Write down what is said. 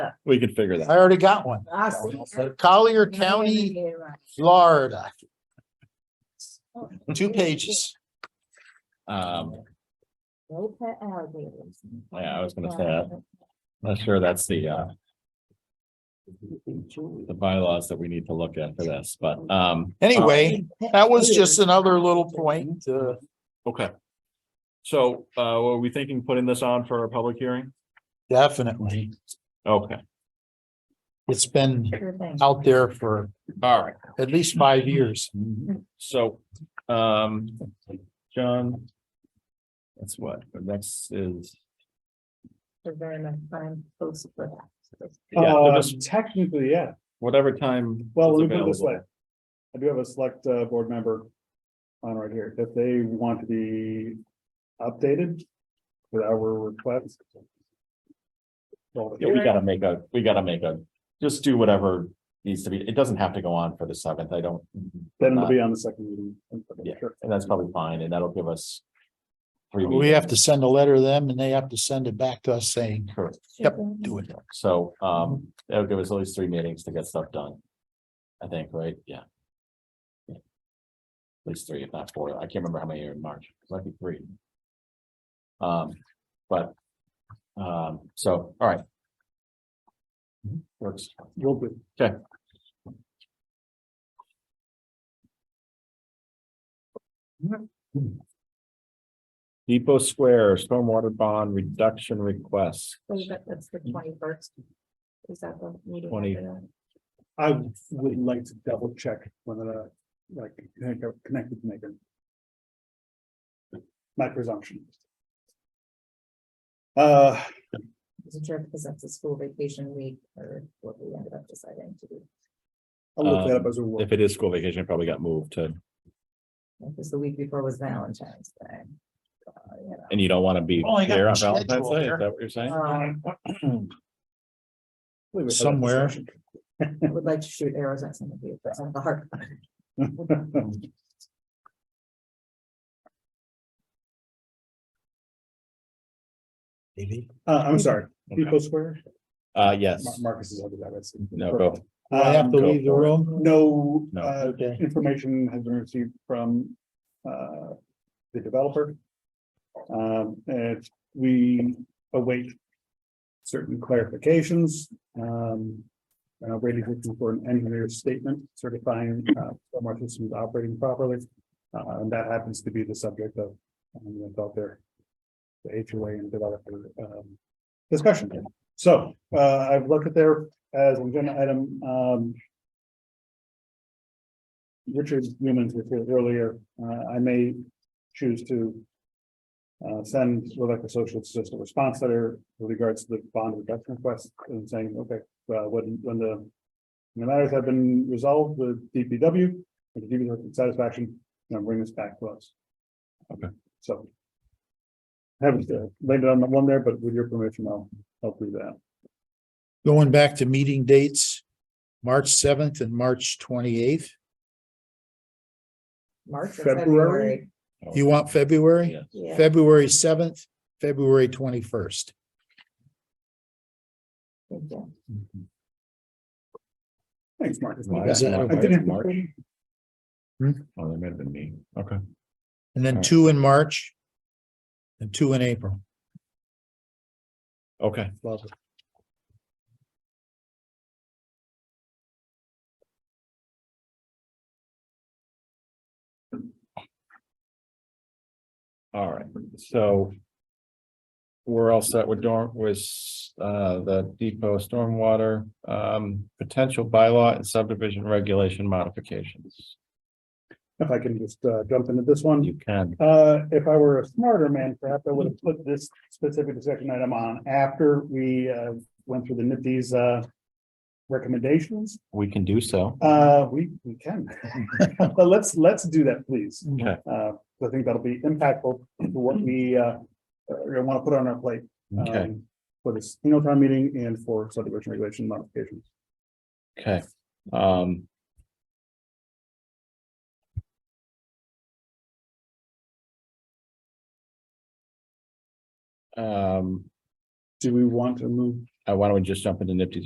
Yeah, We can figure that. I already got one. I see. Collier County, Florida. Oh. Two pages. Um, Go pet alligators. yeah, I was gonna say, that. not sure that's the, uh, the bylaws that we need to look at for this, but, um. Anyway, that was just another little point. uh, Um, Okay. So, uh, were we thinking putting this on for a public hearing? definitely. Okay, It's been Sure thing. out there for all right. at least five years. So, um, John. That's what, the next is, They're very much fun, close for that. yeah, so Uh, just technically, yeah. whatever time. Well, is let me put it this way. available. I do have a select, uh, board member on right here. If they want to be updated with our request. well, Yeah, we gotta make a, we gotta make a, just do whatever needs to be, it doesn't have to go on for the seventh, I don't. Then it'll be on the second meeting. Yeah, and that's probably fine, and that'll give us. Three We have weeks. to send a letter to them and they have to send it back to us saying, Correct. Yep, do it. So, um, that'll give us at least three meetings to get stuff done. I think, right? Yeah. Yeah. At least three, if not four. I can't remember how many are in March. It Might be three. Um, but, um, so, all right. Works. Okay. Depot Square Stormwater Bond Reduction Request. So that- That's the twenty first. Is that the meeting? 20. after that? I would like to double check whether, like, connect- connected to Megan. My presumption. Uh, Is it sure because that's a school vacation week or what we ended up deciding to do? I'll look that up as a. work. Uh, If it is school vacation, it probably got moved to, Because the week before was Valentine's Day. Uh, you know. and you don't want to be Oh, I got there on the schedule Valentine's Day, here. Uh, is that what you're saying? Um, Believe it, Somewhere. I would like to shoot arrows at some of you, but I'm the heart. maybe. Uh, I'm sorry, Okay. Depot Square, Uh, Mar- yes, Marcus is over there, that's. no, go, Do I have to Um, leave the room? No, No. uh, Okay. information has been received from, uh, the developer. Um, and we await certain clarifications, um. Uh, waiting for an engineer's statement certifying, uh, stormwater systems operating properly. Uh, and that happens to be the subject of, um, that's out there. The HOA and developer, um, discussion. So, uh, I've looked at there as an agenda item, um, Richard Newman's was here earlier, uh, I may choose to. Uh, send Rebecca Associates just a response letter with regards to the bond reduction request and saying, okay, uh, when, when the. when The matters have been resolved with DPW, with the DPW satisfaction, and bring this back to us. Okay. So. Haven't uh, laid it on the one there, but with your permission, I'll, I'll do that. Going back to meeting dates, March seventh and March twenty-eighth. March or February? February. You Oh. want February? yeah, Yeah. February seventh, February twenty-first. Thank you. Thanks, Marcus. Why Is that I didn't- March? Hmm? Oh, that may have been me, okay. And All then right. two in March. And two in April. Okay. All right, so. We're all set with dorm, with, uh, the depot stormwater, um, potential bylaw and subdivision regulation modifications. If I can just, uh, jump into this one. You can, Uh, if I were a smarter man, perhaps I would have put this specific discussion item on after we, uh, went through the NIPD's, uh. Recommendations, we can do so. uh, we, we can, but let's, let's do that, please. Okay. Uh, I think that'll be impactful to what we, uh, want to put on our plate. Okay, um, For this, you know, town meeting and for subdivision regulation modifications. okay, um. Um, Do we want to move uh, why don't we Um, just jump into Nifty